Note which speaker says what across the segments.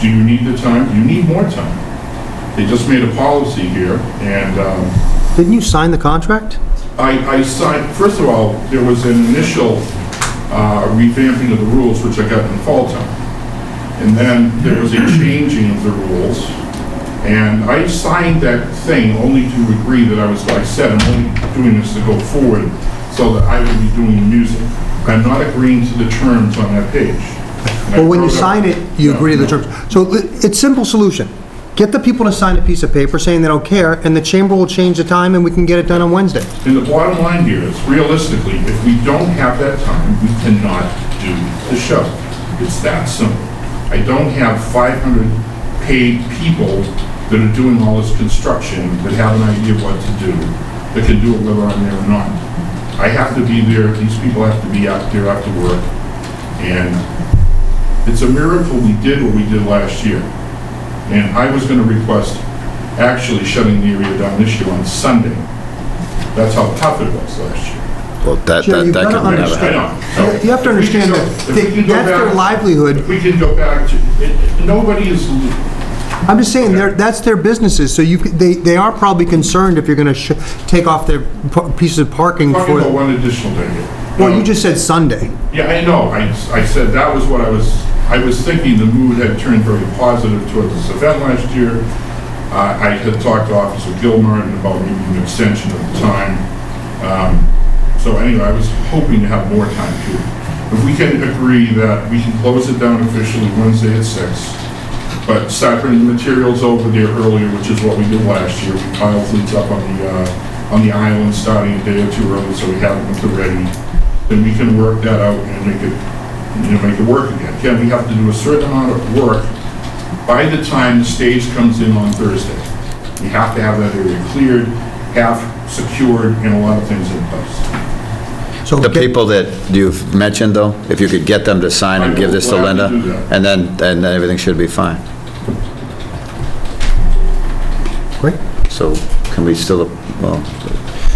Speaker 1: Do you need the time? You need more time. They just made a policy here, and um,
Speaker 2: Didn't you sign the contract?
Speaker 1: I, I signed, first of all, there was an initial uh, revamping of the rules, which I got in fall time. And then there was a changing of the rules, and I signed that thing only to agree that I was, like I said, I'm only doing this to go forward, so that I would be doing the music. I'm not agreeing to the terms on that page. And I
Speaker 2: Well, when you
Speaker 1: wrote
Speaker 2: sign it, you
Speaker 1: No,
Speaker 2: agree to the
Speaker 1: no.
Speaker 2: terms. So li- it's simple solution. Get the people to sign a piece of paper saying they don't care, and the chamber will change the time, and we can get it done on Wednesday.
Speaker 1: And the bottom line here is, realistically, if we don't have that time, we cannot do the show. It's that simple. I don't have 500 paid people that are doing all this construction, that have an idea of what to do, that can do it whether I'm there or not. I have to be there, these people have to be out there after work, and it's a miracle we did what we did last year. And I was going to request actually shutting the area down this year on Sunday. That's how tough it was last year.
Speaker 3: Well, that,
Speaker 2: Sure,
Speaker 3: that,
Speaker 2: you've
Speaker 3: that
Speaker 2: gotta
Speaker 3: could never
Speaker 2: understand-
Speaker 3: happen.
Speaker 1: I know.
Speaker 2: You have to understand
Speaker 1: Oh.
Speaker 2: that
Speaker 1: If we
Speaker 2: they-
Speaker 1: can go
Speaker 2: that's their
Speaker 1: back- If
Speaker 2: livelihood.
Speaker 1: we can go back to, it- it- nobody is, lo-
Speaker 2: I'm just saying, they're- that's their businesses, so you, c- they, they are probably concerned if you're going to take off their p- pieces of parking
Speaker 1: talking about
Speaker 2: for,
Speaker 1: one additional day here. Um,
Speaker 2: well, you just said Sunday.
Speaker 1: Yeah, I know, I, I said that was what I was, I was thinking the mood had turned very positive towards this event last year. Uh, I had talked to Officer Gilmartin about maybe an extension of the time. Um, So anyway, I was hoping to have more time too. If we can agree that we can close it down officially Wednesday at six, but start bringing materials over there earlier, which is what we did last year. We piled things up on the, uh, on the island starting a day or two early, so we have them to ready. Then we can work that out and make it, you know, make it work again. Again, we have to do a certain amount of work by the time the stage comes in on Thursday. We have to have that area cleared, half secured, and a lot of things in place.
Speaker 2: So
Speaker 3: The
Speaker 2: get-
Speaker 3: people that you've mentioned, though, if you could get them to sign and give this to
Speaker 1: I will
Speaker 3: Linda,
Speaker 1: gladly do that.
Speaker 3: and then, and then everything should be fine.
Speaker 2: Great.
Speaker 3: So can we still, well,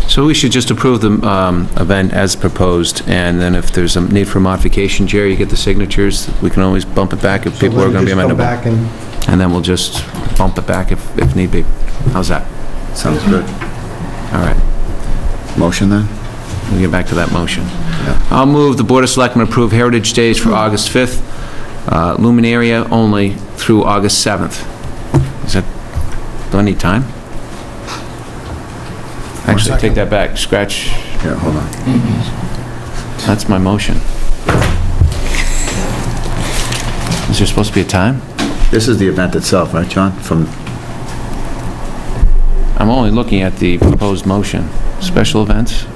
Speaker 4: So we should just approve the um, event as proposed, and then if there's a need for modification, Jerry, you get the signatures, we can always bump it back if
Speaker 2: So
Speaker 4: people are
Speaker 2: let me
Speaker 4: going to be
Speaker 2: just come
Speaker 4: amenable.
Speaker 2: back and-
Speaker 4: And then we'll just bump it back if, if need be. How's that?
Speaker 3: sounds good.
Speaker 4: All right,
Speaker 3: Motion then?
Speaker 4: we'll get back to that motion. I'll move the Board of Selectmen approve Heritage Days for August 5th, uh, Luminaria only through August 7th. Is that, do I need time? Actually, take that back, scratch,
Speaker 3: Yeah, hold on.
Speaker 4: That's my motion. Is there supposed to be a time?
Speaker 3: This is the event itself, right, John? From,
Speaker 4: I'm only looking at the proposed motion. Special events?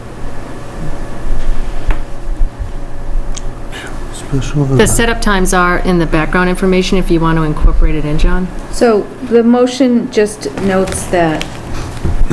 Speaker 5: The setup times are in the background information if you want to incorporate it in, John.
Speaker 6: So the motion just notes that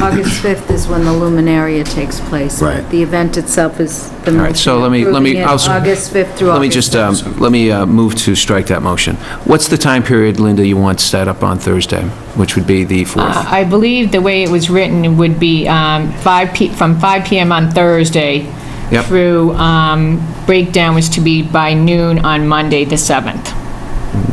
Speaker 6: August 5th is when the luminaria takes place.
Speaker 3: Right.
Speaker 6: The event itself is the
Speaker 4: right, so
Speaker 6: motion
Speaker 4: let me- let me-
Speaker 6: approving it
Speaker 4: I'll s-
Speaker 6: August 5th through August 7th.
Speaker 4: Let me just, um, let me uh, move to strike that motion. What's the time period, Linda, you want set up on Thursday, which would be the 4th?
Speaker 7: I believe the way it was written would be um, 5 p, from 5 PM on Thursday
Speaker 4: Yep.
Speaker 7: through, um, breakdown was to be by noon on Monday, the 7th.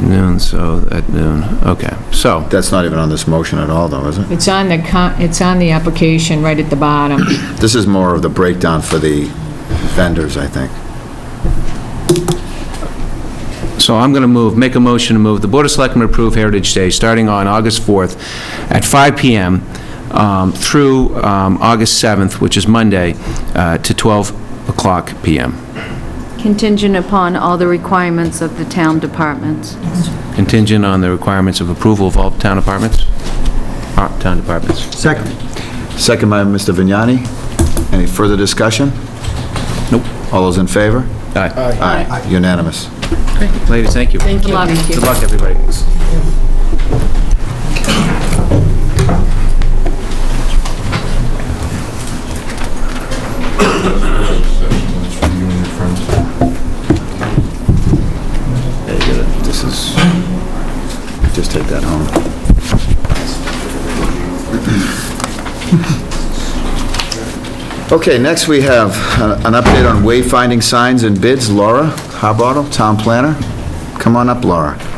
Speaker 4: Noon, so at noon, okay. So,
Speaker 3: that's not even on this motion at all, though, is it?
Speaker 7: It's on the, con- it's on the application right at the bottom.
Speaker 3: This is more of the breakdown for the vendors, I think.
Speaker 4: so I'm going to move, make a motion to move the Board of Selectmen approve Heritage Day starting on August 4th at 5 PM um, through um, August 7th, which is Monday, uh, to 12 o'clock PM,
Speaker 6: Contingent upon all the requirements of the town departments.
Speaker 4: contingent on the requirements of approval of all town departments? Uh, Town departments.
Speaker 2: Second.
Speaker 3: Second by Mr. Vignani. Any further discussion?
Speaker 4: Nope.
Speaker 3: All those in favor?
Speaker 4: Aye.
Speaker 3: Aye. Unanimous.
Speaker 4: Ladies, thank you. Thank
Speaker 5: Good luck.
Speaker 4: Good luck, everybody.
Speaker 1: That's for you and your friends.
Speaker 3: This is, just take that home. Okay, next we have uh, an update on wayfinding signs and bids. Laura Harbottle, Town Planner. Come on up, Laura.